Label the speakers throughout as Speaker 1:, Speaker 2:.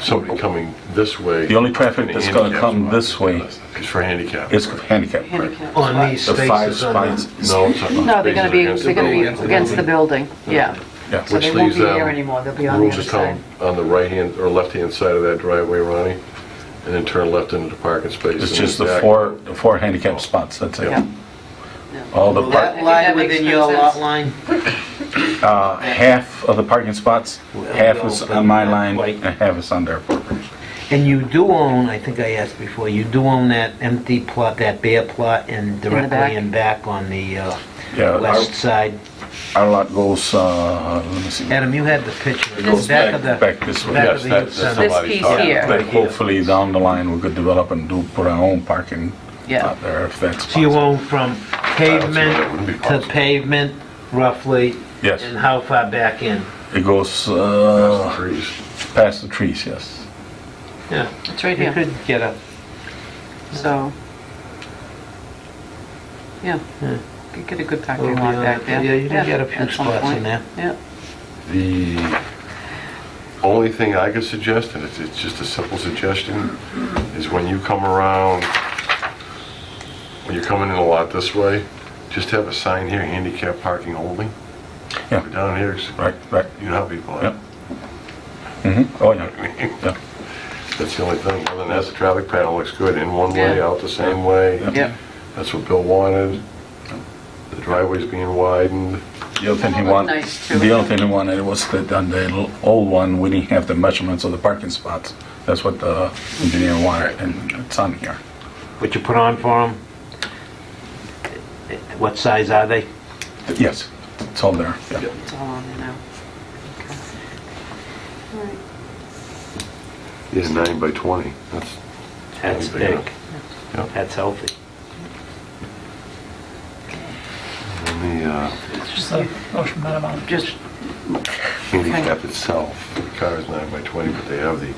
Speaker 1: somebody coming this way.
Speaker 2: The only traffic that's gonna come this way-
Speaker 1: It's for handicap.
Speaker 2: It's handicap.
Speaker 3: handicap.
Speaker 4: On these
Speaker 2: The five
Speaker 4: spaces on
Speaker 2: spots.
Speaker 4: the...
Speaker 1: No, it's not.
Speaker 3: No, they're going to be, they're going to be
Speaker 4: building.
Speaker 3: against the building, yeah.
Speaker 2: Yeah.
Speaker 3: So they
Speaker 1: Which
Speaker 3: won't
Speaker 1: leaves
Speaker 3: be there
Speaker 1: them
Speaker 3: anymore, they'll be on the
Speaker 1: Rules
Speaker 3: other
Speaker 1: of
Speaker 3: side.
Speaker 1: town on the right-hand or left-hand side of that driveway, Ronnie, and then turn left into the parking space.
Speaker 2: It's
Speaker 1: and
Speaker 2: just
Speaker 1: then
Speaker 2: the
Speaker 1: back.
Speaker 2: four, the four handicap spots, that's it.
Speaker 3: Yeah.
Speaker 2: All the,
Speaker 4: Will
Speaker 2: par-
Speaker 4: that
Speaker 3: think
Speaker 4: lie
Speaker 3: that makes
Speaker 4: within
Speaker 3: good
Speaker 4: your lot
Speaker 3: sense.
Speaker 4: line?
Speaker 2: uh, half of the parking spots, half is on my line and half is on their.
Speaker 4: And you do own, I think I asked before, you do own that empty plot, that bare plot and
Speaker 3: back.
Speaker 4: directly in back on the uh,
Speaker 2: Yeah, our,
Speaker 4: west side.
Speaker 2: our lot goes, uh, let me see.
Speaker 4: Adam, you had the picture.
Speaker 2: It goes
Speaker 4: Back
Speaker 2: back,
Speaker 4: of the-
Speaker 2: back this way.
Speaker 4: back
Speaker 1: Yes,
Speaker 4: of the
Speaker 1: that-
Speaker 4: youth
Speaker 1: that's
Speaker 4: center.
Speaker 1: somebody's
Speaker 3: piece
Speaker 1: talking.
Speaker 3: here.
Speaker 2: But hopefully down the line, we could develop and do, put our own parking
Speaker 3: Yeah.
Speaker 2: out there if that's
Speaker 4: So you
Speaker 2: possible.
Speaker 4: own from
Speaker 1: that wouldn't be
Speaker 4: pavement to
Speaker 1: possible.
Speaker 4: pavement roughly?
Speaker 2: Yes.
Speaker 4: And how far back in?
Speaker 2: It goes,
Speaker 1: That's the
Speaker 2: uh,
Speaker 1: trees.
Speaker 2: past the trees, yes.
Speaker 4: Yeah,
Speaker 3: It's right
Speaker 4: you
Speaker 3: here,
Speaker 4: could get a,
Speaker 3: so. Yeah,
Speaker 4: Yeah.
Speaker 3: could get a good
Speaker 4: Well,
Speaker 3: parking lot
Speaker 4: yeah,
Speaker 3: back there.
Speaker 4: yeah, you can get a few
Speaker 3: at some
Speaker 4: spots in
Speaker 3: point.
Speaker 4: there.
Speaker 3: Yeah,
Speaker 1: The only thing I could suggest, and it's, it's just a simple suggestion, is when you come around, when you're coming in a lot this way, just have a sign here, handicap parking only.
Speaker 2: Yeah.
Speaker 1: Down here, it's-
Speaker 2: Right, right.
Speaker 1: you know how people
Speaker 2: Yep.
Speaker 1: are.
Speaker 2: hmm oh, yeah, yeah.
Speaker 1: That's the only thing, other than that, the traffic pattern looks good, in one way,
Speaker 3: Yeah.
Speaker 1: out the same way.
Speaker 3: yeah,
Speaker 1: That's what Bill wanted. The driveway's being widened.
Speaker 2: The other thing he
Speaker 3: That looked
Speaker 2: wanted,
Speaker 3: nice, too.
Speaker 2: the other thing he wanted was that on the l- old one, we didn't have the measurements of the parking spots. That's what the engineer wanted, and it's on here.
Speaker 4: what you put on for them? What size are they?
Speaker 2: Yes, it's all there, yeah.
Speaker 3: it's all on there now. Okay. All right.
Speaker 1: It's nine by 20. That's,
Speaker 4: That's
Speaker 1: Pretty big.
Speaker 4: big.
Speaker 1: Yeah.
Speaker 4: That's healthy.
Speaker 1: and the uh,
Speaker 3: Just,
Speaker 1: handicap itself, the car is nine by 20, but they have the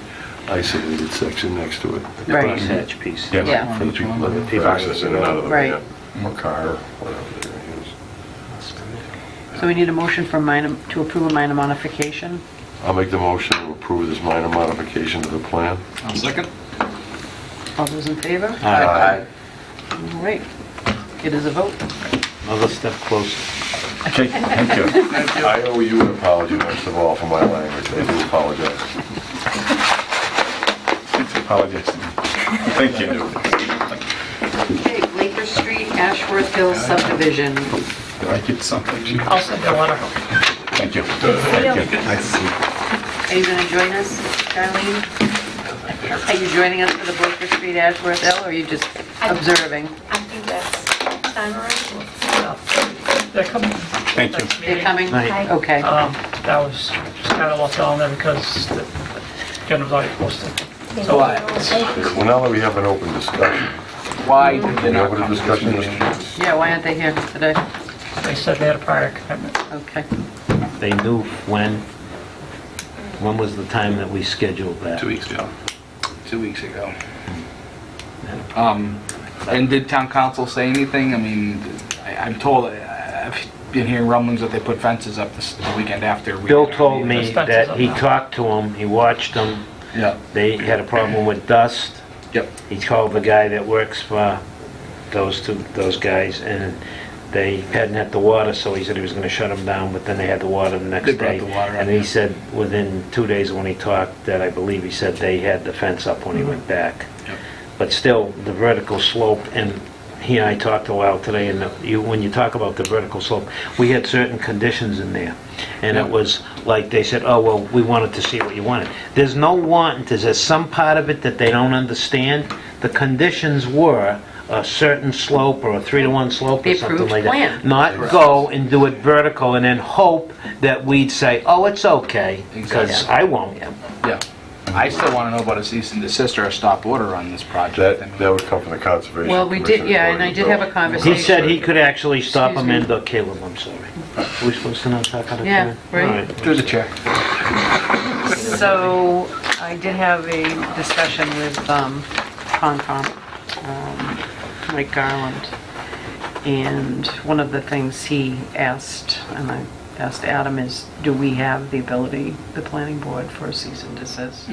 Speaker 1: isolated section next to it.
Speaker 3: right,
Speaker 4: Hatch piece.
Speaker 2: Yeah.
Speaker 3: yeah,
Speaker 1: For the people that
Speaker 4: People
Speaker 1: access in and out of the
Speaker 3: Right.
Speaker 1: van, or car, or whatever they use.
Speaker 3: so we need a motion for minor, to approve a minor modification.
Speaker 1: I'll make the motion to approve this minor modification to the plan.
Speaker 5: I'll second.
Speaker 3: All those in favor?
Speaker 4: Ah. Aye.
Speaker 3: All right, it is a vote.
Speaker 4: Another step closer.
Speaker 2: Okay, thank you.
Speaker 1: I owe you an apology, first of all, for my language. I do apologize.
Speaker 2: Apologies. Thank you.
Speaker 3: Okay, Laker Street, Ashworth Hill subdivision.
Speaker 2: Did I get something?
Speaker 6: I'll send you a letter.
Speaker 2: Thank you. Thank you.
Speaker 3: Are you going to join us, Darlene? Are you joining us for the Laker Street, Ashworth Hill, or are you just observing?
Speaker 6: I think that's time already. They're coming.
Speaker 2: Thank you.
Speaker 6: Next
Speaker 3: They're
Speaker 6: meeting.
Speaker 3: coming?
Speaker 4: Right.
Speaker 3: Okay,
Speaker 6: Um, That was kind of left on there because the agenda was already posted. So I,
Speaker 1: Well, now that we have an open discussion,
Speaker 7: Why did they
Speaker 1: we
Speaker 7: not
Speaker 1: open
Speaker 7: come
Speaker 1: a
Speaker 7: to this
Speaker 1: discussion,
Speaker 7: meeting?
Speaker 1: Mr.
Speaker 3: yeah, why aren't they here today?
Speaker 6: they said they had a prior commitment.
Speaker 3: Okay,
Speaker 4: They knew when, when was the time that we scheduled that?
Speaker 5: Two weeks ago.
Speaker 7: Two weeks ago. Um, and did town council say anything? I mean, I, I'm told, I've been hearing rumblings that they put fences up this the weekend after. we-
Speaker 4: Bill told me
Speaker 6: Expenses
Speaker 4: that he
Speaker 6: up now.
Speaker 4: talked to them, he watched them,
Speaker 7: Yeah,
Speaker 4: they had a problem with dust.
Speaker 7: yep.
Speaker 4: He called the guy that works for those two, those guys, and they hadn't had the water, so he said he was gonna shut them down, but then they had the water the next
Speaker 7: They
Speaker 4: day.
Speaker 7: brought the water up,
Speaker 4: And he
Speaker 7: yeah.
Speaker 4: said, within two days when he talked, that I believe he said they had the fence up
Speaker 6: Mm-hmm.
Speaker 4: when he went back.
Speaker 7: Yep.
Speaker 4: But still, the vertical slope, and he and I talked a while today, and you, when you talk about the vertical slope, we had certain conditions in there. And it
Speaker 7: Yeah.
Speaker 4: was like, they said, oh, well, we wanted to see what you wanted. There's no want, there's there's some part of it that they don't understand. The conditions were a certain slope or a three-to-one slope or
Speaker 3: The
Speaker 4: something
Speaker 3: approved
Speaker 4: like
Speaker 3: plan.
Speaker 4: that. Not go and do it vertical and then hope that we'd say, oh, it's okay, because
Speaker 7: Exactly.
Speaker 4: I won't.
Speaker 7: Yeah. I still want to know about a cease and desist or a stop order on this project. I
Speaker 1: That,
Speaker 7: mean,
Speaker 1: that would come from the Conservation Commission.
Speaker 3: well, we did, yeah, and I did have a conversation.
Speaker 4: He said he could actually stop
Speaker 3: Excuse
Speaker 4: him
Speaker 3: me.
Speaker 4: in, but Caleb, I'm sorry. Are we supposed to not talk out of turn?
Speaker 3: Yeah, right.
Speaker 4: All
Speaker 7: Through the chair.
Speaker 3: So I did have a discussion with um, Concom, um, Mike Garland, and one of the things he asked, and I asked Adam, is do we have the ability, the planning board, for a cease and desist?